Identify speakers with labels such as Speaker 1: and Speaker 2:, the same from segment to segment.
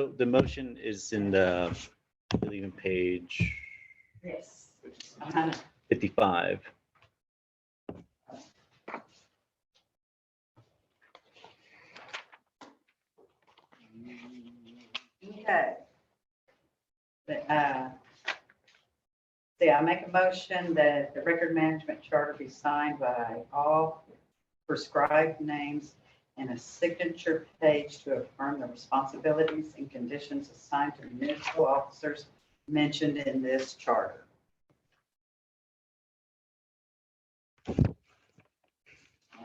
Speaker 1: mo, the motion is in the, I believe in page
Speaker 2: Yes.
Speaker 3: Uh,
Speaker 2: Uh-huh.
Speaker 1: 55.
Speaker 2: Okay. But, uh, See, I make a motion that the record management charter be signed by all prescribed names and a signature page to affirm the responsibilities and conditions assigned to municipal officers mentioned in this charter.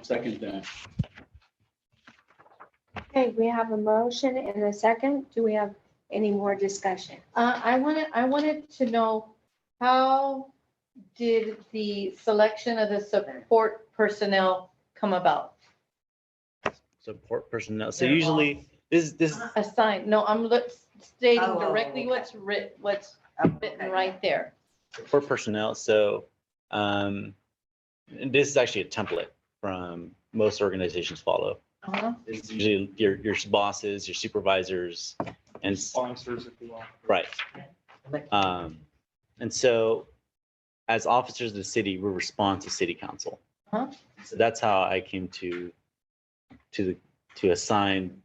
Speaker 4: Second that.
Speaker 5: Okay, we have a motion and a second. Do we have any more discussion?
Speaker 3: Uh, I wanted, I wanted to know, how did the selection of the support personnel come about?
Speaker 1: Support personnel. So usually, this, this,
Speaker 3: Assigned, no, I'm look- stating
Speaker 2: Oh,
Speaker 3: directly
Speaker 2: okay.
Speaker 3: what's writ, what's
Speaker 2: Okay.
Speaker 3: written right there.
Speaker 1: support personnel, so, um, and this is actually a template from most organizations follow.
Speaker 3: Uh-huh.
Speaker 1: It's usually your, your bosses, your supervisors, and, s-
Speaker 4: Sponsors, if you will.
Speaker 1: right. Um, and so as officers of the city, we respond to city council.
Speaker 3: Uh-huh.
Speaker 1: So that's how I came to, to, the to assign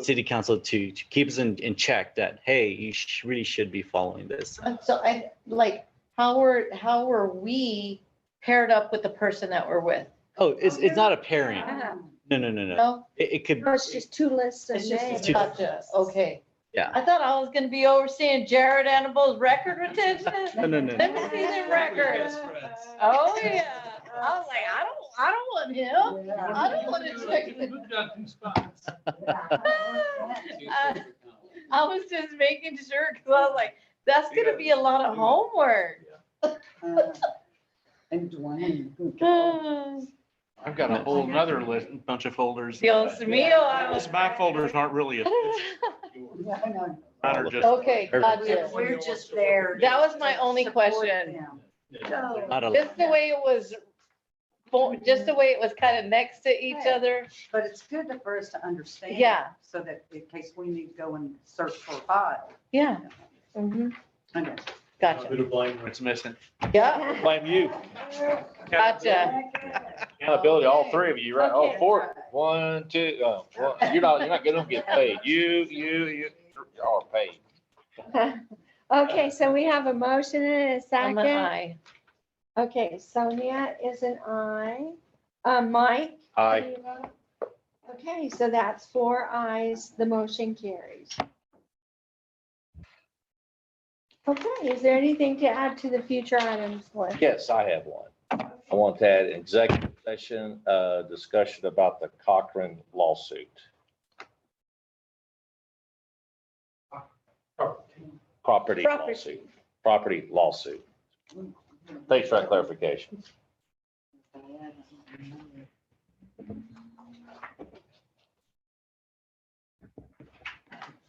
Speaker 1: city council to, to keep us in, in check that, hey, you sh- really should be following this.
Speaker 3: And so I, like, how were, how were we paired up with the person that we're with?
Speaker 1: Oh, it's, it's not a pairing.
Speaker 2: Um,
Speaker 1: No, no, no, no.
Speaker 3: No,
Speaker 1: It, it could,
Speaker 5: No, Oh, it's just two lists of
Speaker 3: it's just,
Speaker 5: names.
Speaker 1: two-
Speaker 3: gotcha, okay.
Speaker 1: Yeah.
Speaker 3: I thought I was gonna be overseeing Jared Annabelle's record retention.
Speaker 1: no, no, no.
Speaker 3: Let
Speaker 1: no.
Speaker 3: me see the record. Oh, yeah. Oh, I was like, I don't, I don't want him. I don't want to check. the- Uh, I was just making sure, because I was like, that's gonna be a lot of homework.
Speaker 2: uh, And
Speaker 3: Uh.
Speaker 2: Dwayne.
Speaker 3: Feels
Speaker 6: I've got a whole nother list, bunch of folders.
Speaker 3: to me, I was.
Speaker 6: Those My folders aren't really, a-
Speaker 2: No, no.
Speaker 6: mine are just.
Speaker 3: Okay,
Speaker 2: We're
Speaker 3: gotcha.
Speaker 2: we're just there.
Speaker 3: That was my only
Speaker 2: to support
Speaker 3: question.
Speaker 2: them.
Speaker 1: Not a-
Speaker 3: Just the way it was, fo- just the way it was kind of next to each other.
Speaker 2: But it's good to- for us to understand.
Speaker 3: Yeah.
Speaker 2: So that in case we need to go and search for a file.
Speaker 3: Yeah. Mhm.
Speaker 2: Okay.
Speaker 3: Gotcha.
Speaker 4: to blame
Speaker 6: It's missing.
Speaker 3: Yeah,
Speaker 5: Uh-huh.
Speaker 6: Blame you.
Speaker 3: gotcha.
Speaker 6: Accountability, all three of you, right? All
Speaker 2: Okay.
Speaker 6: four. One, two,
Speaker 7: uh,
Speaker 6: oh, one. You're not, you're not gonna get paid. You, you, you, you are paid.
Speaker 5: Okay, so we have a motion and a
Speaker 3: I'm an
Speaker 5: second.
Speaker 3: I.
Speaker 5: Okay, Sonia is an aye. Uh, Mike?
Speaker 6: Aye.
Speaker 5: do you vote? Okay, so that's four ayes. The motion carries. Okay, is there anything to add to the future items list?
Speaker 7: Yes, I have one. I want to add executive session, uh, discussion about the Cochran lawsuit.
Speaker 4: oh,
Speaker 7: Property
Speaker 5: Property.
Speaker 7: lawsuit, property lawsuit. Thanks for that clarification.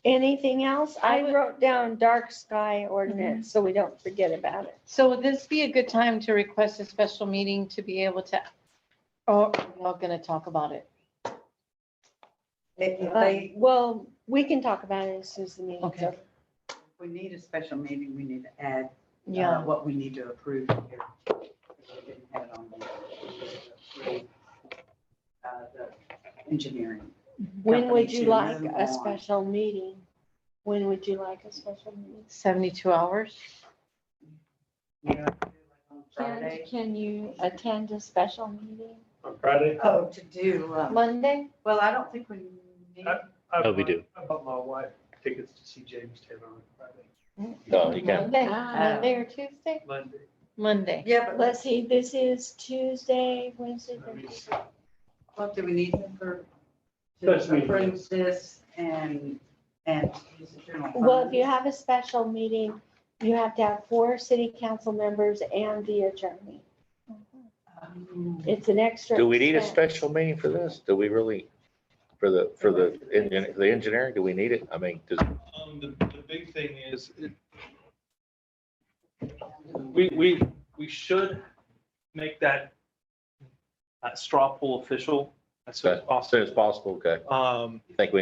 Speaker 5: Anything else?
Speaker 3: I
Speaker 5: I Mhm.
Speaker 3: would-
Speaker 5: wrote down dark sky ordinance, so we don't forget about it.
Speaker 3: So would this be a good time to request a special meeting to be able to, oh, we're not gonna talk about it.
Speaker 2: If if
Speaker 5: Um,
Speaker 2: they,
Speaker 5: Well, we can talk about it as soon as the meeting's
Speaker 3: Okay.
Speaker 5: over.
Speaker 2: if we need a special meeting, we need to add uh,
Speaker 3: Yeah.
Speaker 2: what we need to approve here. We didn't have it on there. Uh, the Engineering.
Speaker 5: When would
Speaker 2: company
Speaker 5: you
Speaker 2: to
Speaker 5: like
Speaker 2: move
Speaker 5: a
Speaker 2: on.
Speaker 5: special meeting? When would you like a special meeting?
Speaker 3: 72 hours?
Speaker 2: You know, on
Speaker 5: Can,
Speaker 2: Friday.
Speaker 5: can you attend a special meeting?
Speaker 4: On Friday?
Speaker 2: Oh, to do, um,
Speaker 5: Monday?
Speaker 2: well, I don't think we need. uh,
Speaker 4: I
Speaker 1: Oh, we
Speaker 4: bought-
Speaker 1: do.
Speaker 4: I bought my wife tickets to see James Taylor on Friday,
Speaker 7: No, Uh, you can't.
Speaker 3: Monday,
Speaker 5: Ah.
Speaker 3: Monday or Tuesday?
Speaker 4: Monday.
Speaker 3: Um, Monday.
Speaker 2: Yeah, but
Speaker 5: Let's see, this is Tuesday, Wednesday.
Speaker 4: Let me
Speaker 5: Thursday.
Speaker 4: see.
Speaker 2: What do we need for, to
Speaker 4: Special meeting.
Speaker 2: approve this and, and use the general?
Speaker 5: Well, if
Speaker 2: fund?
Speaker 5: you have a special meeting, you have to have four city council members and the attorney.
Speaker 2: Um,
Speaker 5: It's an extra.
Speaker 7: Do we need a
Speaker 5: expense.
Speaker 7: special meeting for this? Do we really, for the, for the, engin- the engineering, do we need it? I mean, does,
Speaker 4: Um, the, the big thing is, it- we, we, we should make that, that straw poll official as soon as
Speaker 7: as soon as
Speaker 4: possible.
Speaker 7: possible, okay.
Speaker 4: Um,
Speaker 7: I think we